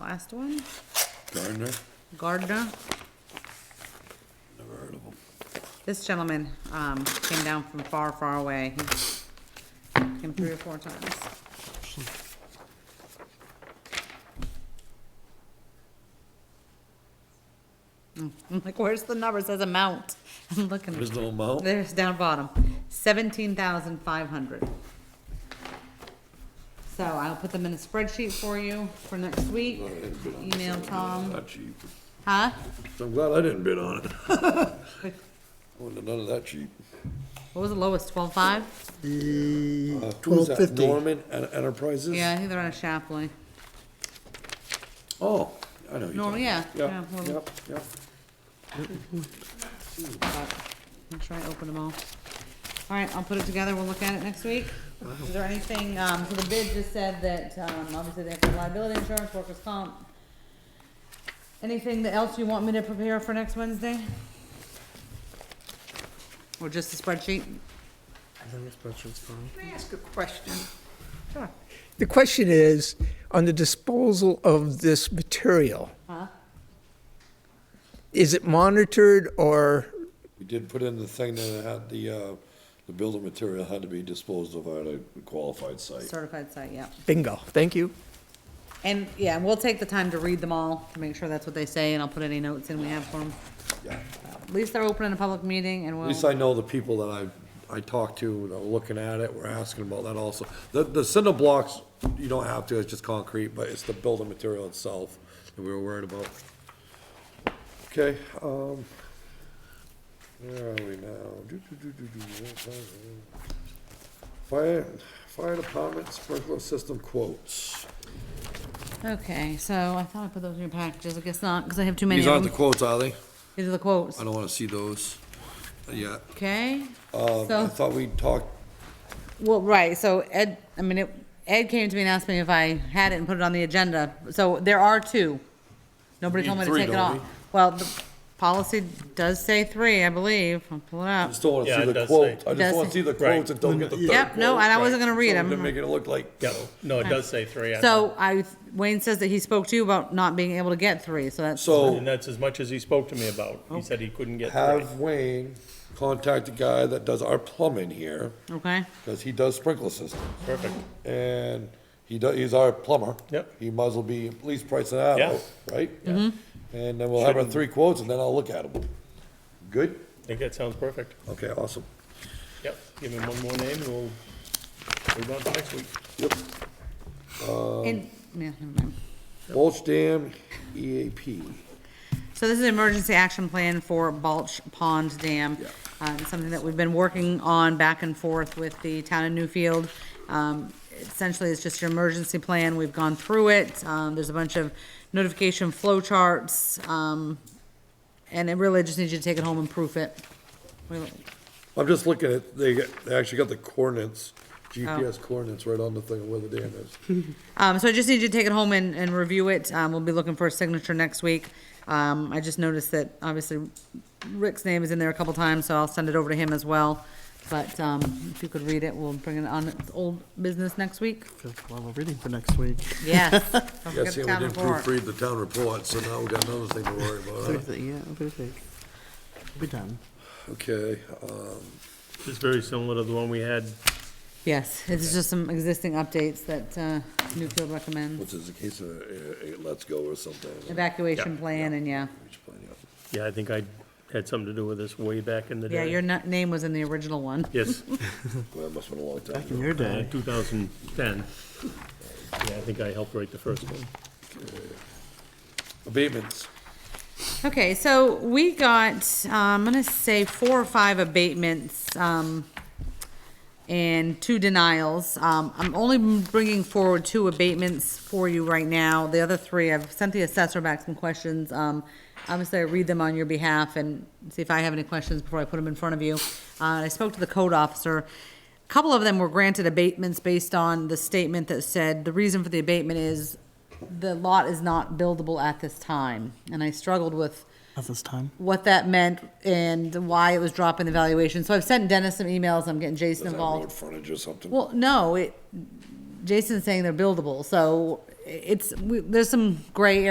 last one, Gardner, Gardner. never heard of him. This gentleman, um, came down from far, far away. He Came three or four times. Mm, I'm like, where's the number? It Says amount. I'm There's looking. no amount? There's down bottom, seventeen thousand five hundred. So I'll put them in a spreadsheet for you for next week. Email Tom, Not cheap. huh? I'm glad I didn't bid on it. I Wasn't none of that cheap. What was the lowest, twelve-five? Uh, who's Twelve that, fifty. Norman En- Enterprises? Yeah, I think they're on Shapley. Oh, I know you. Norman, yeah. Yeah, well, yep, yep. Make sure I open them all. All right, I'll put it together, we'll look at it next week. Is there anything, um, so the bid just said that, um, obviously they have the liability insurance, workers' comp. Anything that else you want me to prepare for next Wednesday? Or just a spreadsheet? Can I ask a question? Sure. The question is, on the disposal of this material, Huh? is it monitored or, We did put in the thing that had the, uh, the building material had to be disposed of at a qualified site. Certified site, yeah. bingo, thank you. And, yeah, and we'll take the time to read them all, to make sure that's what they say, and I'll put any notes in we have for them. Yeah. At least they're opening a public meeting and At we'll, least I know the people that I, I talked to, that are looking at it, were asking about that also. The, the cinder blocks, you don't have to, it's just concrete, but it's the building material itself that we were worried about. Okay, um, where are we now? Do, do, do, do, do, what time is it? Fire, fire department sprinkler system quotes. okay, so I thought I put those in your packages, I guess not, because I have too many These of aren't the them. Um, quotes, are they? These are the quotes, I don't wanna see those yet. okay? Um, I So- thought we talked, Well, right, so Ed, I mean, it- Ed came to me and asked me if I had it and put it on the agenda, so there are two. Nobody told me Need to three, take it don't off. we? Well, the policy does say three, I believe, I'll pull it I up. just don't wanna Yeah, see it the does quote. say- I just Does wanna say- see the quotes and don't get the third Yep, no, quote. and I wasn't gonna read So They're them. making it look like, Yeah, no, it does say three. I So I, Wayne says that he spoke to you about not being able to get three, so that's, thought. so And that's as much as he spoke to me about. He said he couldn't get three. have Wayne contact the guy that does our plumbing here, okay? because he does sprinkler systems. Perfect. And he does, he's our plumber. Yep. He might as well be at least pricing that Yeah. out, right? And then we'll have our Shouldn't- three quotes and then I'll look at them. Good? I think that sounds perfect. Okay, awesome. Yep, give him one more name and we'll move on to next week. Yep. um, And, yeah, never mind. Mulch Dam E EAP. So this is an emergency action plan for Balch Pond Dam. Uh, it's something that we've been working on back and forth with the town of Newfield. Um, essentially, it's just your emergency plan. We've gone through it. Um, there's a bunch of notification flow charts. Um, and it really just needs you to take it home and proof it. We- I'm just looking at, they, got- they actually got the coordinates, Oh. GPS coordinates right on the thing where the dam is. Um, so I just need you to take it home and, and review it. Um, we'll be looking for a signature next week. Um, I just noticed that obviously Rick's name is in there a couple times, so I'll send it over to him as well. But, um, if you could read it, we'll bring it on its old business next week. Good, Well, we're reading for next week. Yes. Don't Yes, forget the and we town didn't report. proofread the town report, so now we got another thing to worry about. huh? Thursday, yeah, Thursday. We'll be done. Okay, um, It's very similar to the one we had. Yes, it's just some existing updates that, uh, Newfield recommends. which is a case of, uh, uh, let's go or something. Evacuation Yeah. plan and yeah. Which plan, yeah. Yeah, I think I had something to do with this way back in the Yeah, day. your nu- name was in the original one. Yes, Well, that must've been a long time Back in ago. your uh, day. 2010. Yeah, I think I helped write the first one. Abatements, Okay, so we got, uh, I'm gonna say four or five abatements, um, and two denials. Um, I'm only bringing forward two abatements for you right now. The other three, I've sent the assessor back some questions. Um, obviously, I read them on your behalf and see if I have any questions before I put them in front of you. Uh, I spoke to the code officer. A Couple of them were granted abatements based on the statement that said, the reason for the abatement is the lot is not buildable at this time. And I struggled with At this time. what that meant and why it was dropping the valuation. So I've sent Dennis some emails, I'm getting Jason is that road involved. frontage or something? Well, no, it, Jason's saying they're buildable, so it's, we- there's some gray